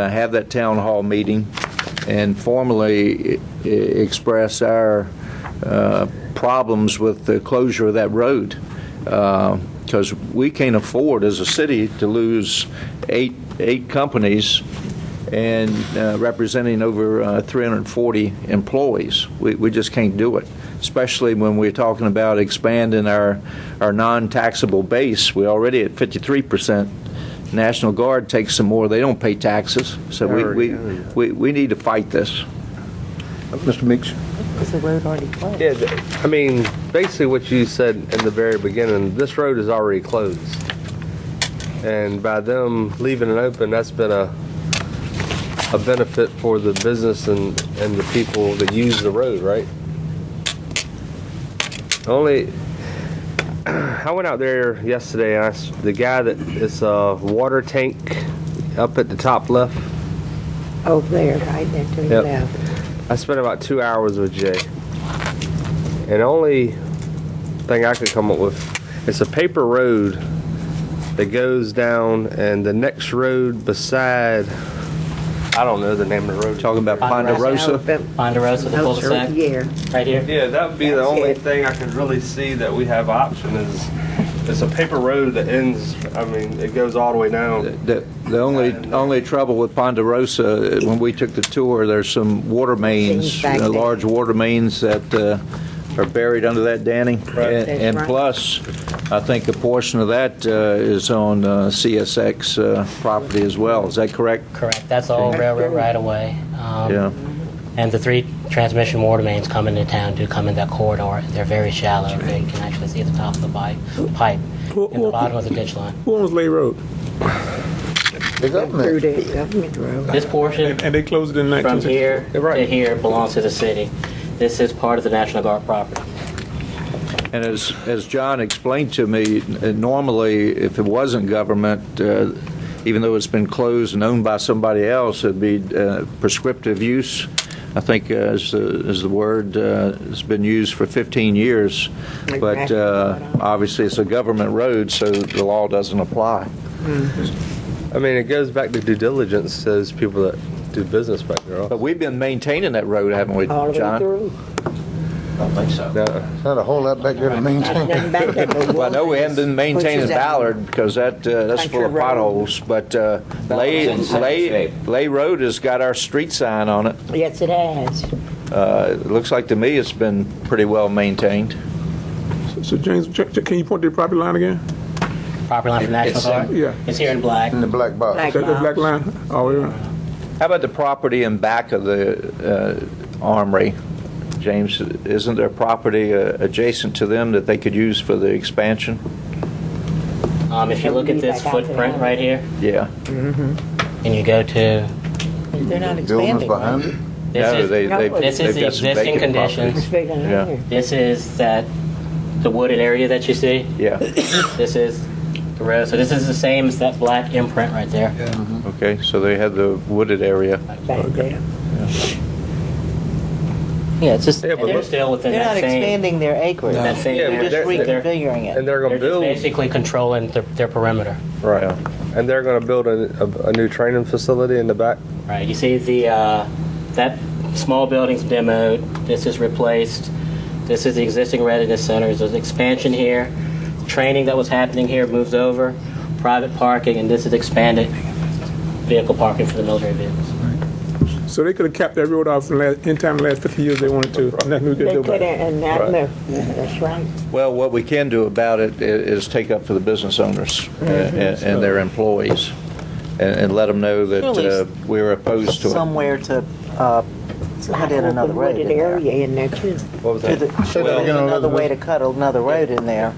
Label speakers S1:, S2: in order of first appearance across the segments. S1: uh, have that town hall meeting and formally i- i- express our uh, problems with the closure of that road. Because we can't afford, as a city, to lose eight, eight companies and uh, representing over uh, 340 employees. We, we just can't do it, especially when we're talking about expanding our, our non-taxable base. We're already at 53%. National Guard takes some more. They don't pay taxes, so we, we, we, we need to fight this.
S2: Mr. Meeks?
S3: Is the road already closed?
S4: Yeah, th- I mean, basically what you said in the very beginning, this road is already closed. And by them leaving it open, that's been a, a benefit for the business and, and the people that use the road, right? Only, I went out there yesterday and I s the guy that, it's a water tank up at the top left.
S3: Oh, there, right there to your
S4: Yep.
S3: left.
S4: I spent about two hours with Jay. And the only thing I could come up with it's a paper road that goes down and the next road beside I don't know the name of the road.
S1: Talking about Ponderosa,
S5: Ponderosa, the cul-de-sac,
S3: Yeah,
S5: right here.
S4: Yeah, that would be the
S3: That's
S4: only
S3: it.
S4: thing I could really see that we have option is it's a paper road that ends I mean, it goes all the way down.
S1: the, the only, only trouble with Ponderosa, uh, when we took the tour, there's some water mains,
S3: Things back
S1: uh,
S3: there.
S1: large water mains that uh, are buried under that, Danny.
S4: Right.
S1: And-
S3: That's
S1: And
S3: right.
S1: plus, I think a portion of that uh, is on uh, CSX uh, property as well. Is that correct?
S5: Correct. That's all railroad right away. Um,
S1: Yeah.
S5: And the three transmission water mains coming into town do come in that corridor. They're very shallow. They can actually see the top of the pipe, pipe and the bottom of the ditch line.
S6: Who owns Lay Road?
S3: through the government road.
S5: This portion
S6: And they closed it in
S5: from
S6: 1960.
S5: here to here belongs to the city. This is part of the National Guard property.
S1: And as, as John explained to me, n- uh, normally, if it wasn't government, uh, even though it's been closed and owned by somebody else, it'd be uh, prescriptive use, I think uh, is, the- is the word, uh, it's been used for 15 years. But uh, obviously, it's a government road, so the law doesn't apply.
S4: I mean it goes back to due diligence to those people that do business back there.
S1: But we've been maintaining that road, haven't we,
S3: All the way
S1: John?
S3: through.
S4: No.
S2: Not a whole lot back there to maintain.
S3: Nothing back there but
S1: Well, I know we haven't been
S3: Which
S1: maintaining
S3: is that-
S1: Ballard because that, uh, that's
S3: Country
S1: full of
S3: road.
S1: potholes, but uh, Lay,
S7: Ballard's in
S1: Lay,
S7: shape.
S1: Lay Road has got our street sign on it.
S3: Yes, it has.
S1: Uh, It looks like to me it's been pretty well maintained.
S6: So- So James, j- j- can you point to the property line again?
S5: Property line for National Guard.
S6: uh, yeah.
S5: It's here in black.
S2: In the black box.
S3: Black
S6: Is that the black
S3: box.
S6: line? Oh, yeah.
S1: How about the property in back of the uh, armory? James, isn't there property uh, adjacent to them that they could use for the expansion?
S6: Mm-hmm.
S5: Um, if you look at this footprint right here,
S1: Yeah.
S5: and you go to
S3: They're not
S2: Buildings
S3: expanding.
S2: behind it.
S5: this
S1: No,
S5: is
S1: they- they've-
S5: this
S1: they've
S5: is the
S1: got some
S5: existing
S1: vacant property.
S5: conditions.
S3: It's bigger than
S1: Yeah.
S3: here.
S5: This is that the wooded area that you see.
S1: Yeah,
S5: This is the road. So this is the same as that black imprint right there.
S1: okay, so they have the wooded area.
S3: Back there.
S5: Yeah, it's just
S4: Yeah, but
S5: they're
S4: look-
S5: still within
S8: They're
S5: that
S8: not
S5: same.
S8: expanding their acreage.
S5: That same.
S4: Yeah,
S8: They're
S4: but
S8: just
S5: they're,
S8: reconfiguring
S4: And
S8: it.
S4: they're gonna
S5: they're just
S4: build
S5: basically controlling their, their perimeter.
S4: Right. And they're going to build a, a, a new training facility in the back.
S5: Right. You see the uh, that small building's demoed. This is replaced. This is the existing readiness centers. There's expansion here. Training that was happening here moves over. Private parking, and this is expanded vehicle parking for the military vehicles.
S6: So they could have capped that road off in last- in time the last 50 years they wanted to. Nothing we could
S3: They
S6: do
S3: could,
S6: about it.
S3: and that, no, that's right.
S1: Well, what we can do about it i- is take up for the business owners uh, and and their employees, and and let them know that
S8: Surely
S1: uh,
S8: s-
S1: we're opposed to it.
S8: Somewhere to uh, put in another road in
S3: Wooded
S8: there.
S3: area in there too.
S4: What was
S8: To
S4: that?
S8: the- Should there be another way to cut another road in there,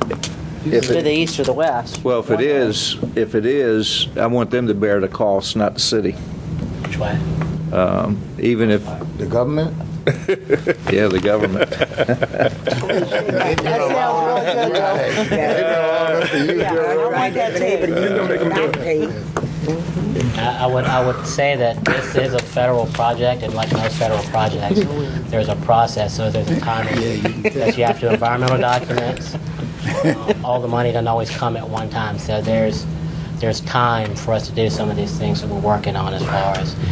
S1: If
S8: to
S1: it-
S8: the east or the west.
S1: Well, if it is, if it is, I want them to bear the cost, not the city. Um,
S5: Which way?
S1: Even if,
S2: The government?
S1: yeah, the government.
S5: I I would, I would say that this is a federal project, and like most federal projects, there's a process, so there's a timing, that you have to environmental documents. Um, All the money doesn't always come at one time, so there's, there's time for us to do some of these things that we're working on as far as